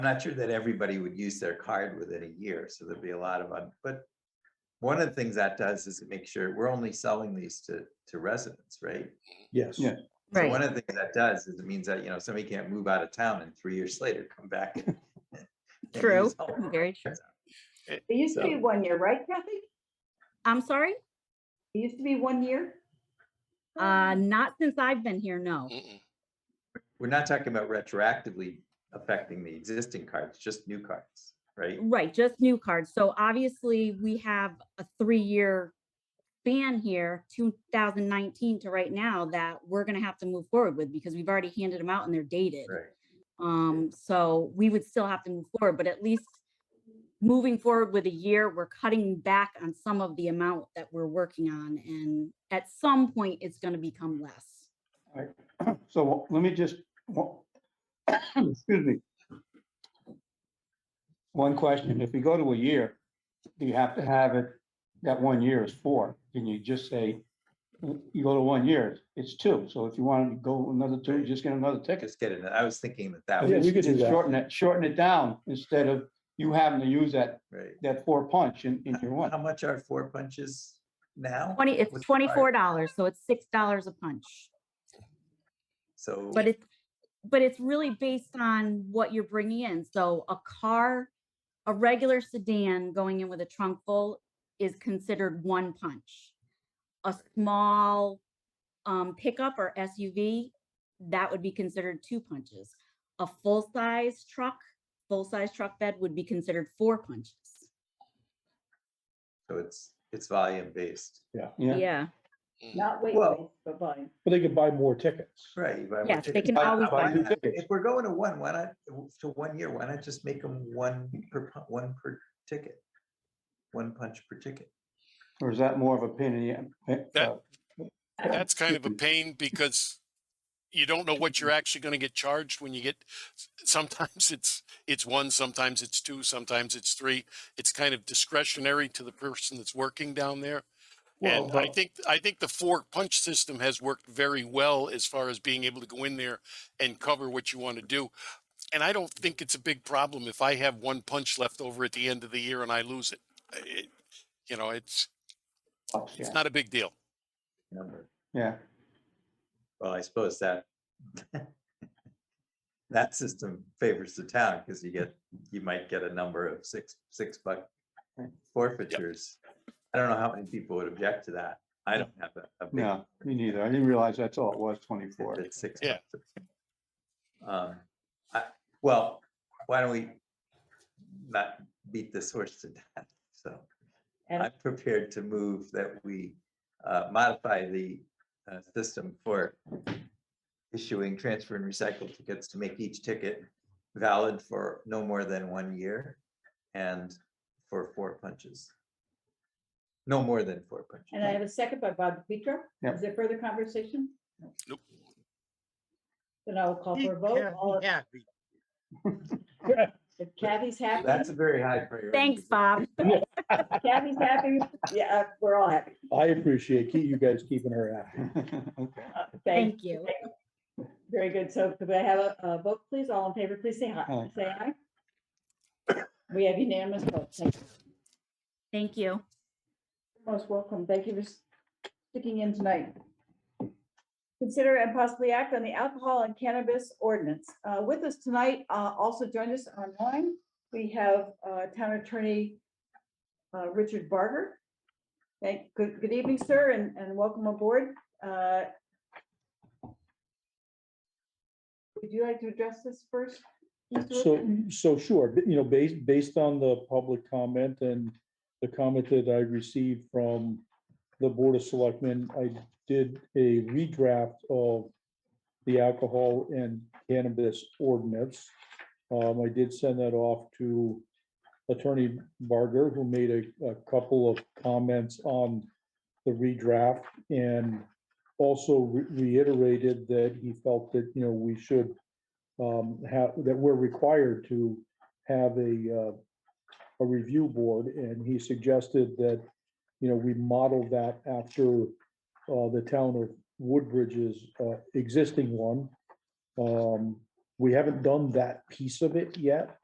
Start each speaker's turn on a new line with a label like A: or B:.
A: I'm not sure that everybody would use their card within a year, so there'd be a lot of, un- but one of the things that does is it makes sure we're only selling these to, to residents, right?
B: Yes.
C: Yeah.
A: So
D: Right.
A: One of the things that does is it means that, you know, somebody can't move out of town and three years later come back. and- and
D: True.
A: use all of it.
D: Very true.
E: It used to be one year, right, Kathy?
D: I'm sorry?
E: It used to be one year?
D: Uh, not since I've been here, no.
F: Mm-mm.
A: We're not talking about retroactively affecting the existing cards, just new cards, right?
D: Right, just new cards. So obviously, we have a three-year span here, 2019 to right now, that we're gonna have to move forward with because we've already handed them out and they're dated.
A: Right.
D: Um, so we would still have to move forward, but at least moving forward with a year, we're cutting back on some of the amount that we're working on. And at some point, it's gonna become less.
C: So let me just, wa- excuse me. One question, if we go to a year, do you have to have it, that one year is four? Can you just say, you go to one year, it's two, so if you want to go another two, just get another ticket.
A: Just get it. I was thinking that that
B: Yeah,
A: was,
B: we could do that.
C: Shorten it, shorten it down instead of you having to use that,
A: right.
C: that four punch in, in your
A: How
C: one.
A: much are four punches now?
D: 20, it's
A: with the card?
D: $24, so it's $6 a punch.
A: So,
D: But it's, but it's really based on what you're bringing in. So a car, a regular sedan going in with a trunk full is considered one punch. A small um, pickup or SUV, that would be considered two punches. A full-size truck, full-size truck bed would be considered four punches.
A: so it's, it's volume based.
C: Yeah,
D: Yeah,
E: Not weight
A: Well-
E: based, but volume.
B: But they could buy more tickets.
A: Right. you buy more
D: Yes, they
A: tickets.
D: can
A: Why-
D: always
A: why
C: buy new
A: not?
C: tickets.
A: If we're going to one, why not, to one year, why not just make them one per, pu- one per ticket? One punch per ticket.
C: or is that more of a pain in the? eh,
F: That-
C: uh,
F: That's kind of a
C: excuse
F: pain because you don't know what you're actually going to get charged when you get, s- sometimes it's, it's one, sometimes it's two, sometimes it's three. It's kind of discretionary to the person that's working down there.
C: Well,
F: And I
C: but-
F: think, I think the four punch system has worked very well as far as being able to go in there and cover what you want to do. And I don't think it's a big problem if I have one punch left over at the end of the year and I lose it. It- You know, it's,
C: oh, yeah,
F: it's not a big deal.
A: number.
C: Yeah,
A: Well, I suppose that that system favors the town because you get, you might get a number of six, six buck
C: Right.
A: forfeitures. I don't know how many people would object to that. I don't have a, a big
C: no, me neither. I didn't realize that's all it was, twenty-four.
A: At six.
F: Yeah.
A: months. Um, I, well, why don't we not beat this horse to death? So
E: And-
A: I'm prepared to move that we uh, modify the uh, system for issuing transfer and recycle tickets to make each ticket valid for no more than one year and for four punches. No more than four punches.
E: And I have a second by Bob Petro.
C: Yep.
E: Is there further conversation?
F: Nope.
E: Then I will call
G: Keep
E: for a vote.
G: Kathy
E: All-
G: Happy.
E: If Kathy's happy,
A: That's a very high priority.
D: thanks,
A: so-
D: Bob.
E: Kathy's happy, yeah, uh, we're all happy.
B: I appreciate keep- you guys keeping her happy.
C: Okay.
E: Uh, Thank,
D: Thank you.
E: very good. So could I have a, a vote, please? All in favor, please say hi.
C: Aye.
E: Say aye. We have unanimous votes. Thank you.
D: Thank you.
E: Most welcome. Thank you for sticking in tonight. Consider and possibly act on the alcohol and cannabis ordinance. Uh, With us tonight, uh, also join us online, we have uh, Town Attorney uh, Richard Barger. Thank, good, good evening, sir, and, and welcome aboard. Uh, Would you like to address this first? Mr. Richard?
B: So, so sure, but, you know, based, based on the public comment and the comment that I received from the Board of Selectmen, I did a redraft of the alcohol and cannabis ordinance. Um, I did send that off to Attorney Barger, who made a, a couple of comments on the redraft and also re- reiterated that he felt that, you know, we should um, have, that we're required to have a, uh, a review board, and he suggested that, you know, we model that after, uh, the town of Woodbridge's, uh, existing one. Um, we haven't done that piece of it yet,